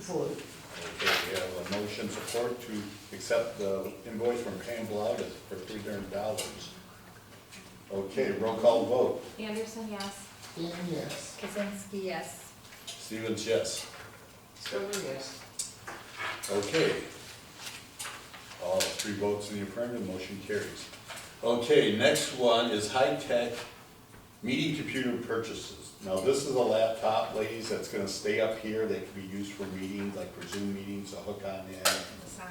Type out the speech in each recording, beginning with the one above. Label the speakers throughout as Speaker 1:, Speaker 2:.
Speaker 1: Support.
Speaker 2: Okay, we have a motion support to accept the invoice from Pam Blau for three hundred dollars. Okay, roll call vote.
Speaker 3: Anderson, yes.
Speaker 1: Dan, yes.
Speaker 3: Kazinsky, yes.
Speaker 2: Stevens, yes.
Speaker 1: Stover, yes.
Speaker 2: Okay. All three votes in the affirmative, motion carries. Okay, next one is high-tech meeting computer purchases. Now, this is a laptop, ladies, that's gonna stay up here, that can be used for meetings, like for Zoom meetings, a hook on in.
Speaker 4: The sign.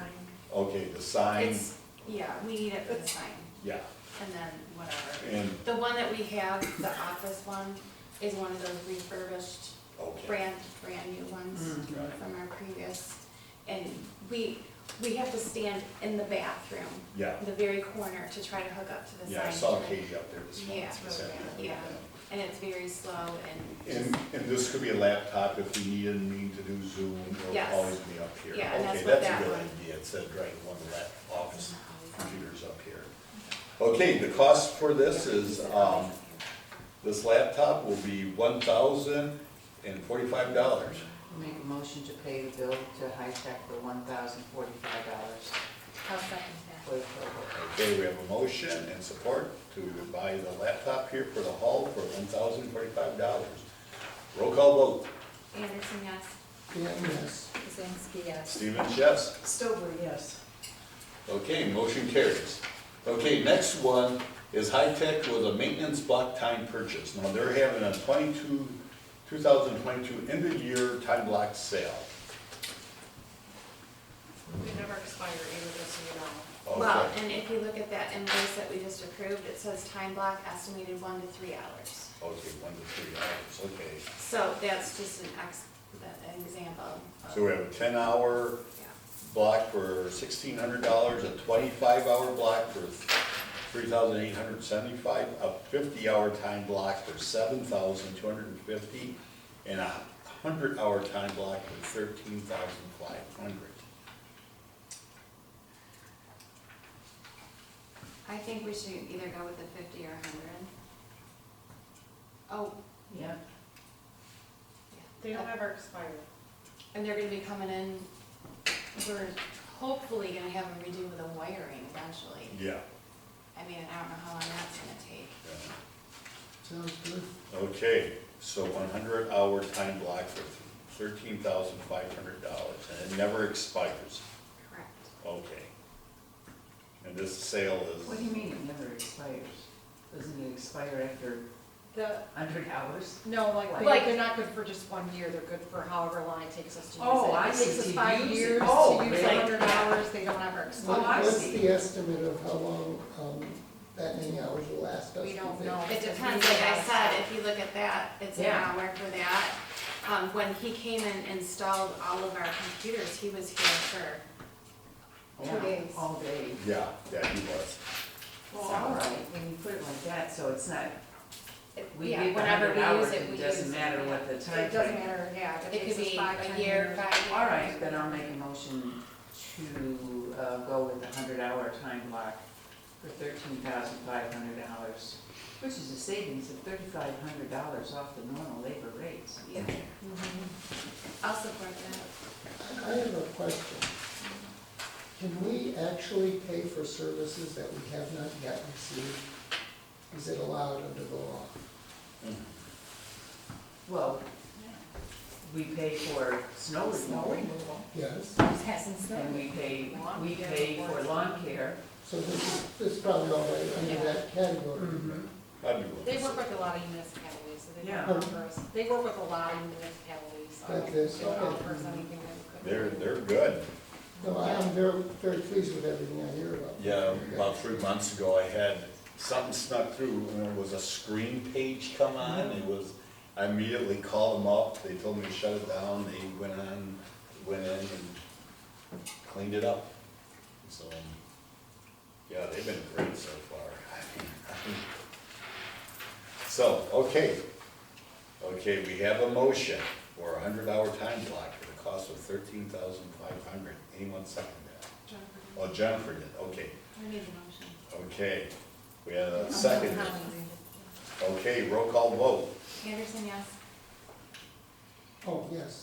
Speaker 2: Okay, the sign,
Speaker 4: It's, yeah, we need it for the sign,
Speaker 2: yeah,
Speaker 4: and then whatever.
Speaker 2: and,
Speaker 4: The one that we have, the office one, is one of those refurbished,
Speaker 2: okay,
Speaker 4: brand, brand new ones
Speaker 2: Mm. Right.
Speaker 4: from our previous. And we, we have to stand in the bathroom,
Speaker 2: yeah.
Speaker 4: the very corner, to try to hook up to the sign.
Speaker 2: Yeah, I saw Katie up there this morning.
Speaker 4: Yeah, it's
Speaker 2: this
Speaker 4: really bad,
Speaker 2: afternoon.
Speaker 4: yeah, and it's very slow and
Speaker 2: And,
Speaker 4: just,
Speaker 2: and this could be a laptop if we needed, need to do Zoom, it'll
Speaker 4: Yes.
Speaker 2: always be up here.
Speaker 4: Yeah, and that's
Speaker 2: Okay,
Speaker 4: what
Speaker 2: that's
Speaker 4: that
Speaker 2: a good
Speaker 4: one-
Speaker 2: idea, it said right, one of the lap, office computers up here. Okay, the cost for this is, um, this laptop will be one thousand and forty-five dollars.
Speaker 1: Make a motion to pay the bill to High Tech for one thousand forty-five dollars
Speaker 4: I'll second
Speaker 1: for
Speaker 4: that.
Speaker 1: the program.
Speaker 2: Okay, we have a motion and support to buy the laptop here for the hall for one thousand forty-five dollars. Roll call vote,
Speaker 4: Anderson, yes.
Speaker 1: Dan, yes.
Speaker 3: Kazinsky, yes.
Speaker 2: Stevens, yes?
Speaker 1: Stover, yes.
Speaker 2: Okay, motion carries. Okay, next one is high-tech with a maintenance block time purchase. Now, they're having a twenty-two, two thousand twenty-two end-of-year time block sale.
Speaker 5: We never expire either, just so you know.
Speaker 4: Well,
Speaker 2: Okay,
Speaker 4: and if you look at that invoice that we just approved, it says time block estimated one to three hours.
Speaker 2: Okay, one to three hours, okay.
Speaker 4: So that's just an ex, an example. of-
Speaker 2: So we have a ten-hour
Speaker 4: Yeah.
Speaker 2: block for sixteen hundred dollars, a twenty-five hour block for three thousand eight hundred seventy-five, a fifty-hour time block for seven thousand two hundred and fifty, and a hundred-hour time block for thirteen thousand five hundred.
Speaker 4: I think we should either go with the fifty or a hundred. Oh,
Speaker 1: Yeah.
Speaker 5: They
Speaker 4: yeah,
Speaker 5: don't ever expire.
Speaker 4: and they're gonna be coming in, we're hopefully gonna have them redo the wiring eventually.
Speaker 2: Yeah.
Speaker 4: I mean, I don't know how long that's gonna take.
Speaker 2: yeah.
Speaker 1: Sounds good.
Speaker 2: Okay, so one hundred hour time block for thirteen thousand five hundred dollars, and it never expires,
Speaker 4: Correct.
Speaker 2: okay. And this sale
Speaker 1: What
Speaker 2: is,
Speaker 1: do you mean it never expires? Doesn't it expire after
Speaker 5: The,
Speaker 1: a hundred hours?
Speaker 5: no, like,
Speaker 1: Like-
Speaker 5: they- they're not good for just one year, they're good for however long it takes us to use it.
Speaker 1: Oh, I
Speaker 5: It takes
Speaker 1: see,
Speaker 5: us
Speaker 1: to
Speaker 5: five
Speaker 1: use it.
Speaker 5: years
Speaker 1: Oh,
Speaker 5: to use
Speaker 1: really?
Speaker 5: a hundred hours, they don't ever
Speaker 1: Oh,
Speaker 5: expire.
Speaker 1: I
Speaker 6: What's
Speaker 1: see.
Speaker 6: the estimate of how long, um, that many hours will last us?
Speaker 5: We
Speaker 6: to
Speaker 5: don't
Speaker 6: fix?
Speaker 5: know.
Speaker 4: It depends, like I said, if you look at that, it's an
Speaker 1: Yeah.
Speaker 4: hour for that. Um, when he came and installed all of our computers, he was here
Speaker 1: Yeah,
Speaker 4: days.
Speaker 1: All day.
Speaker 2: yeah, yeah, he was.
Speaker 1: Well, all right, when you put it like that, so it's not,
Speaker 4: for,
Speaker 1: we
Speaker 4: yeah,
Speaker 1: give a
Speaker 4: whenever
Speaker 1: hundred
Speaker 4: we use it,
Speaker 1: hours,
Speaker 4: we
Speaker 1: it
Speaker 4: use it.
Speaker 1: doesn't matter what the time.
Speaker 5: It doesn't matter, yeah, if it
Speaker 4: It could
Speaker 5: takes us
Speaker 4: be
Speaker 5: five,
Speaker 4: a
Speaker 5: ten
Speaker 4: year,
Speaker 5: years.
Speaker 4: five years.
Speaker 1: All right, then I'll make a motion to uh, go with the hundred hour time block for thirteen thousand five hundred dollars, which is a savings of thirty-five hundred dollars off the normal labor rates.
Speaker 4: Yeah. I'll support that.
Speaker 6: I have a question. Can we actually pay for services that we have not yet received? Is it allowed under the law?
Speaker 1: Well, we pay for snow
Speaker 5: Snow
Speaker 1: Oh, removal,
Speaker 5: removal.
Speaker 6: Yes,
Speaker 1: and we pay, we pay for lawn care.
Speaker 6: so this is, this is probably all right under that category.
Speaker 2: I'd be willing to
Speaker 5: They work
Speaker 2: say.
Speaker 5: with a lot of municipalities, so they
Speaker 1: Yeah.
Speaker 5: don't offer us, they work with a lot of municipalities, so
Speaker 6: Like
Speaker 5: they
Speaker 6: this,
Speaker 5: don't
Speaker 6: okay.
Speaker 5: offer us anything that we could.
Speaker 2: They're, they're good.
Speaker 6: No, I am very, very pleased with everything I hear about.
Speaker 2: Yeah, about three months ago, I had, something snuck through, and there was a screen page come on, it was, I immediately called them up, they told me to shut it down, they went on, went in and cleaned it up. So, um, yeah, they've been great so far. So, okay, okay, we have a motion for a hundred hour time block at a cost of thirteen thousand five hundred, anyone second that?
Speaker 4: Jennifer,
Speaker 2: Oh, Jennifer did, okay,
Speaker 4: I need the motion.
Speaker 2: okay. We had a second.
Speaker 4: I'm hungry.
Speaker 2: Okay, roll call vote.
Speaker 4: Anderson, yes.
Speaker 6: Oh, yes.